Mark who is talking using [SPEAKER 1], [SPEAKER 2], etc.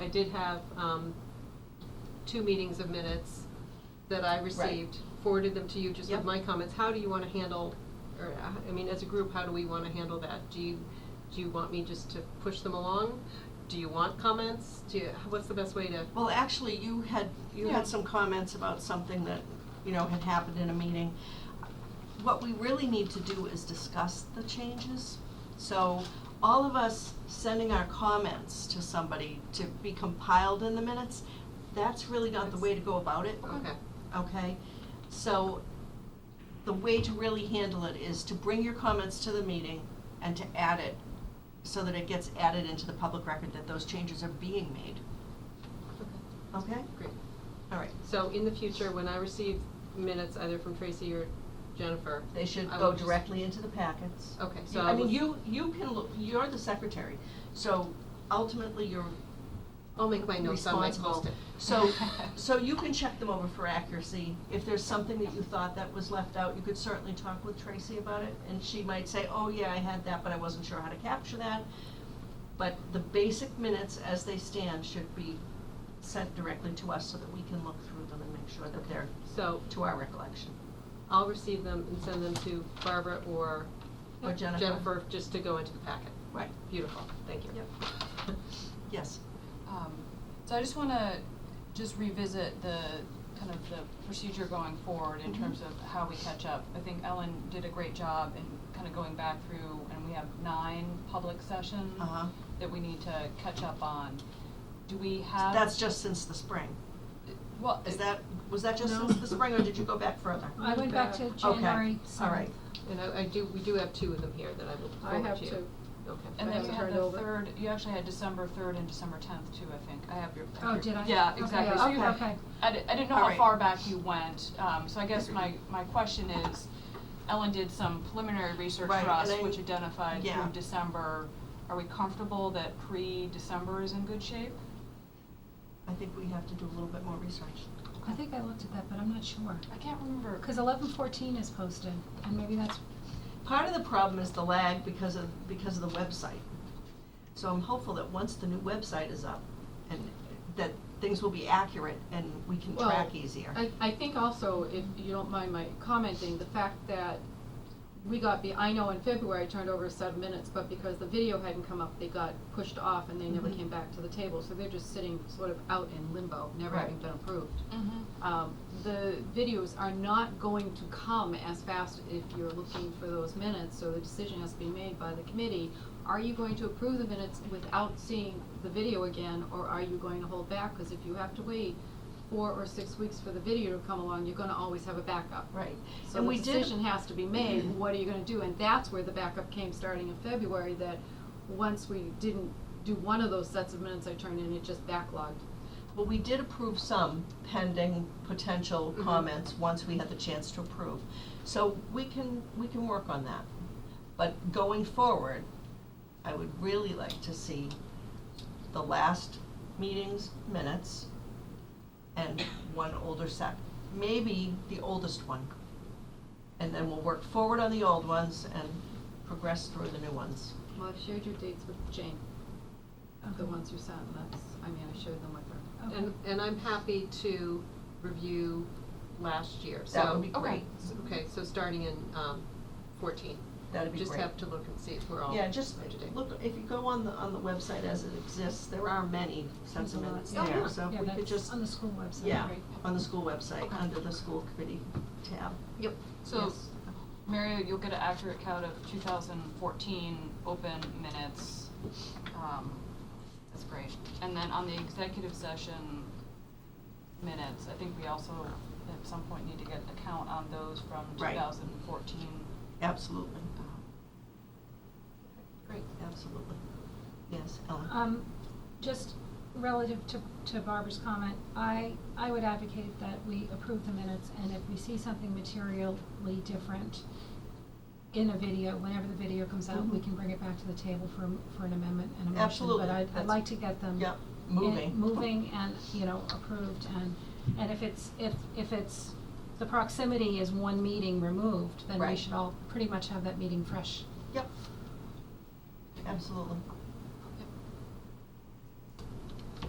[SPEAKER 1] I did have um, two meetings of minutes that I received, forwarded them to you just with
[SPEAKER 2] Yep.
[SPEAKER 1] my comments. How do you want to handle, or, uh, I mean, as a group, how do we want to handle that? Do you, do you want me just to push them along? Do you want comments? Do you, what's the best way to?
[SPEAKER 2] Well, actually, you had, you
[SPEAKER 1] Yeah.
[SPEAKER 2] had some comments about something that, you know, had happened in a meeting. What we really need to do is discuss the changes. So all of us sending our comments to somebody to be compiled in the minutes, that's really not the way to go about it.
[SPEAKER 1] Okay.
[SPEAKER 2] Okay, so the way to really handle it is to bring your comments to the meeting and to add it so that it gets added into the public record that those changes are being made. Okay?
[SPEAKER 1] Great.
[SPEAKER 2] All right.
[SPEAKER 1] So in the future, when I receive minutes either from Tracy or Jennifer.
[SPEAKER 2] They should
[SPEAKER 1] I
[SPEAKER 2] go
[SPEAKER 1] will just-
[SPEAKER 2] directly into the packets.
[SPEAKER 1] Okay,
[SPEAKER 2] You-
[SPEAKER 1] so I
[SPEAKER 2] I mean,
[SPEAKER 1] will-
[SPEAKER 2] you, you can, look. you're the secretary, so ultimately you're
[SPEAKER 1] I'll make my notes on my
[SPEAKER 2] responsible.
[SPEAKER 1] post-it.
[SPEAKER 2] So, so you can check them over for accuracy. If there's something that you thought that was left out, you could certainly talk with Tracy about it, and she might say, oh, yeah, I had that, but I wasn't sure how to capture that. But the basic minutes as they stand should be sent directly to us so that we can look through them and make sure that they're
[SPEAKER 1] So
[SPEAKER 2] to our recollection.
[SPEAKER 1] I'll receive them and send them to Barbara or.
[SPEAKER 2] Or Jennifer.
[SPEAKER 1] Jennifer, just to go into the packet.
[SPEAKER 2] Right,
[SPEAKER 1] Beautiful, thank you.
[SPEAKER 2] yes.
[SPEAKER 3] Um, so I just wanna just revisit the, kind of the procedure going forward in
[SPEAKER 2] Mhm.
[SPEAKER 3] terms of how we catch up. I think Ellen did a great job in kind of going back through, and we have nine public sessions
[SPEAKER 2] Uh-huh.
[SPEAKER 3] that we need to catch up on. Do we have?
[SPEAKER 2] That's just since the spring.
[SPEAKER 3] Well.
[SPEAKER 2] Is
[SPEAKER 3] it-
[SPEAKER 2] that, was that just since the spring, or did you go back further?
[SPEAKER 4] I went back to
[SPEAKER 1] Okay,
[SPEAKER 4] Uh, January
[SPEAKER 2] Okay, all right.
[SPEAKER 4] seventh.
[SPEAKER 1] And I, I do, we do have two of them here that I will
[SPEAKER 4] I
[SPEAKER 1] forward
[SPEAKER 4] have
[SPEAKER 1] to you.
[SPEAKER 4] two.
[SPEAKER 1] Okay.
[SPEAKER 3] And
[SPEAKER 4] I
[SPEAKER 3] then you
[SPEAKER 4] haven't
[SPEAKER 3] had
[SPEAKER 4] heard
[SPEAKER 3] the
[SPEAKER 4] over.
[SPEAKER 3] third, you actually had December third and December tenth too, I think. I have your. I have
[SPEAKER 4] Oh,
[SPEAKER 3] your-
[SPEAKER 4] did I?
[SPEAKER 3] Yeah,
[SPEAKER 4] Okay,
[SPEAKER 3] exactly. So you
[SPEAKER 2] okay,
[SPEAKER 3] have-
[SPEAKER 4] okay.
[SPEAKER 3] I di- I didn't know
[SPEAKER 2] All
[SPEAKER 3] how
[SPEAKER 2] right.
[SPEAKER 3] far back you went, um, so I guess my, my question is, Ellen did some preliminary research for
[SPEAKER 2] Right,
[SPEAKER 3] us,
[SPEAKER 2] and I-
[SPEAKER 3] which identified
[SPEAKER 2] yeah.
[SPEAKER 3] through December. Are we comfortable that pre-December is in good shape?
[SPEAKER 2] I think we have to do a little bit more research.
[SPEAKER 4] I think I looked at that, but I'm not sure.
[SPEAKER 3] I can't remember.
[SPEAKER 4] Cause eleven fourteen is posted, and maybe that's,
[SPEAKER 2] Part of the problem is the lag because of, because of the website. So I'm hopeful that once the new website is up, and that things will be accurate and we can
[SPEAKER 5] Well,
[SPEAKER 2] track easier.
[SPEAKER 5] I, I think also, if you don't mind my commenting, the fact that we got, be- I know in February I turned over a set of minutes, but because the video hadn't come up, they got pushed off and they never
[SPEAKER 2] Mhm.
[SPEAKER 5] came back to the table, so they're just sitting sort of out in limbo, never
[SPEAKER 2] Right.
[SPEAKER 5] having been approved.
[SPEAKER 3] Mm-hmm.
[SPEAKER 5] Um, the videos are not going to come as fast if you're looking for those minutes, so the decision has to be made by the committee. Are you going to approve the minutes without seeing the video again, or are you going to hold back? Cause if you have to wait four or six weeks for the video to come along, you're gonna always have a backup.
[SPEAKER 2] Right.
[SPEAKER 5] So
[SPEAKER 2] And
[SPEAKER 5] the
[SPEAKER 2] we did-
[SPEAKER 5] decision has to be made, what are you gonna do? And that's where the backup came, starting in February, that once we didn't do one of those sets of minutes I turned in, it just backlogged.
[SPEAKER 2] Well, we did approve some pending potential
[SPEAKER 1] Mhm.
[SPEAKER 2] comments, once we had the chance to approve. So we can, we can work on that. But going forward, I would really like to see the last meeting's minutes and one older set, maybe the oldest one. And then we'll work forward on the old ones and progress through the new ones.
[SPEAKER 5] Well, I've shared your dates with Jane, the
[SPEAKER 4] Okay.
[SPEAKER 5] ones you sent, that's, I mean, I shared them with her.
[SPEAKER 4] Okay.
[SPEAKER 1] And, and I'm happy to review last year, so.
[SPEAKER 2] That would be
[SPEAKER 3] okay.
[SPEAKER 2] great.
[SPEAKER 1] s- Okay, so starting in, um, fourteen.
[SPEAKER 2] That'd be
[SPEAKER 1] Just
[SPEAKER 2] great.
[SPEAKER 1] have to look and see if we're all
[SPEAKER 2] Yeah,
[SPEAKER 1] up to date.
[SPEAKER 2] just, look, if you go on the, on the website as it exists, there are many sets of
[SPEAKER 4] There's a lot.
[SPEAKER 2] minutes
[SPEAKER 1] Oh, yeah.
[SPEAKER 2] there, so if we could just,
[SPEAKER 4] on the school website.
[SPEAKER 2] yeah,
[SPEAKER 3] Great.
[SPEAKER 2] on the school website,
[SPEAKER 3] Okay.
[SPEAKER 2] under the school committee tab.
[SPEAKER 1] Yep.
[SPEAKER 3] So,
[SPEAKER 2] Yes.
[SPEAKER 3] Mario, you'll get an accurate count of two thousand fourteen open minutes. Um, that's great. And then on the executive session minutes, I think we also at some point need to get a count on those from
[SPEAKER 2] Right.
[SPEAKER 3] two thousand fourteen. Uh,
[SPEAKER 2] Absolutely,
[SPEAKER 3] Great.
[SPEAKER 2] absolutely. Yes, Ellen?
[SPEAKER 4] Um, just relative to, to Barbara's comment, I, I would advocate that we approve the minutes, and if we see something materially different in a video, whenever the video comes out, we
[SPEAKER 2] Mhm.
[SPEAKER 4] can bring it back to the table for, m- for an amendment and a motion.
[SPEAKER 2] Absolutely,
[SPEAKER 4] But I'd, I'd
[SPEAKER 2] that's-
[SPEAKER 4] like to get them.
[SPEAKER 2] Yep,
[SPEAKER 4] in-
[SPEAKER 2] moving.
[SPEAKER 4] Moving and, you know, approved, and, and if it's, if, if it's, the proximity is one meeting removed, then we
[SPEAKER 2] Right.
[SPEAKER 4] should all pretty much have that meeting fresh.
[SPEAKER 2] Yep. Absolutely.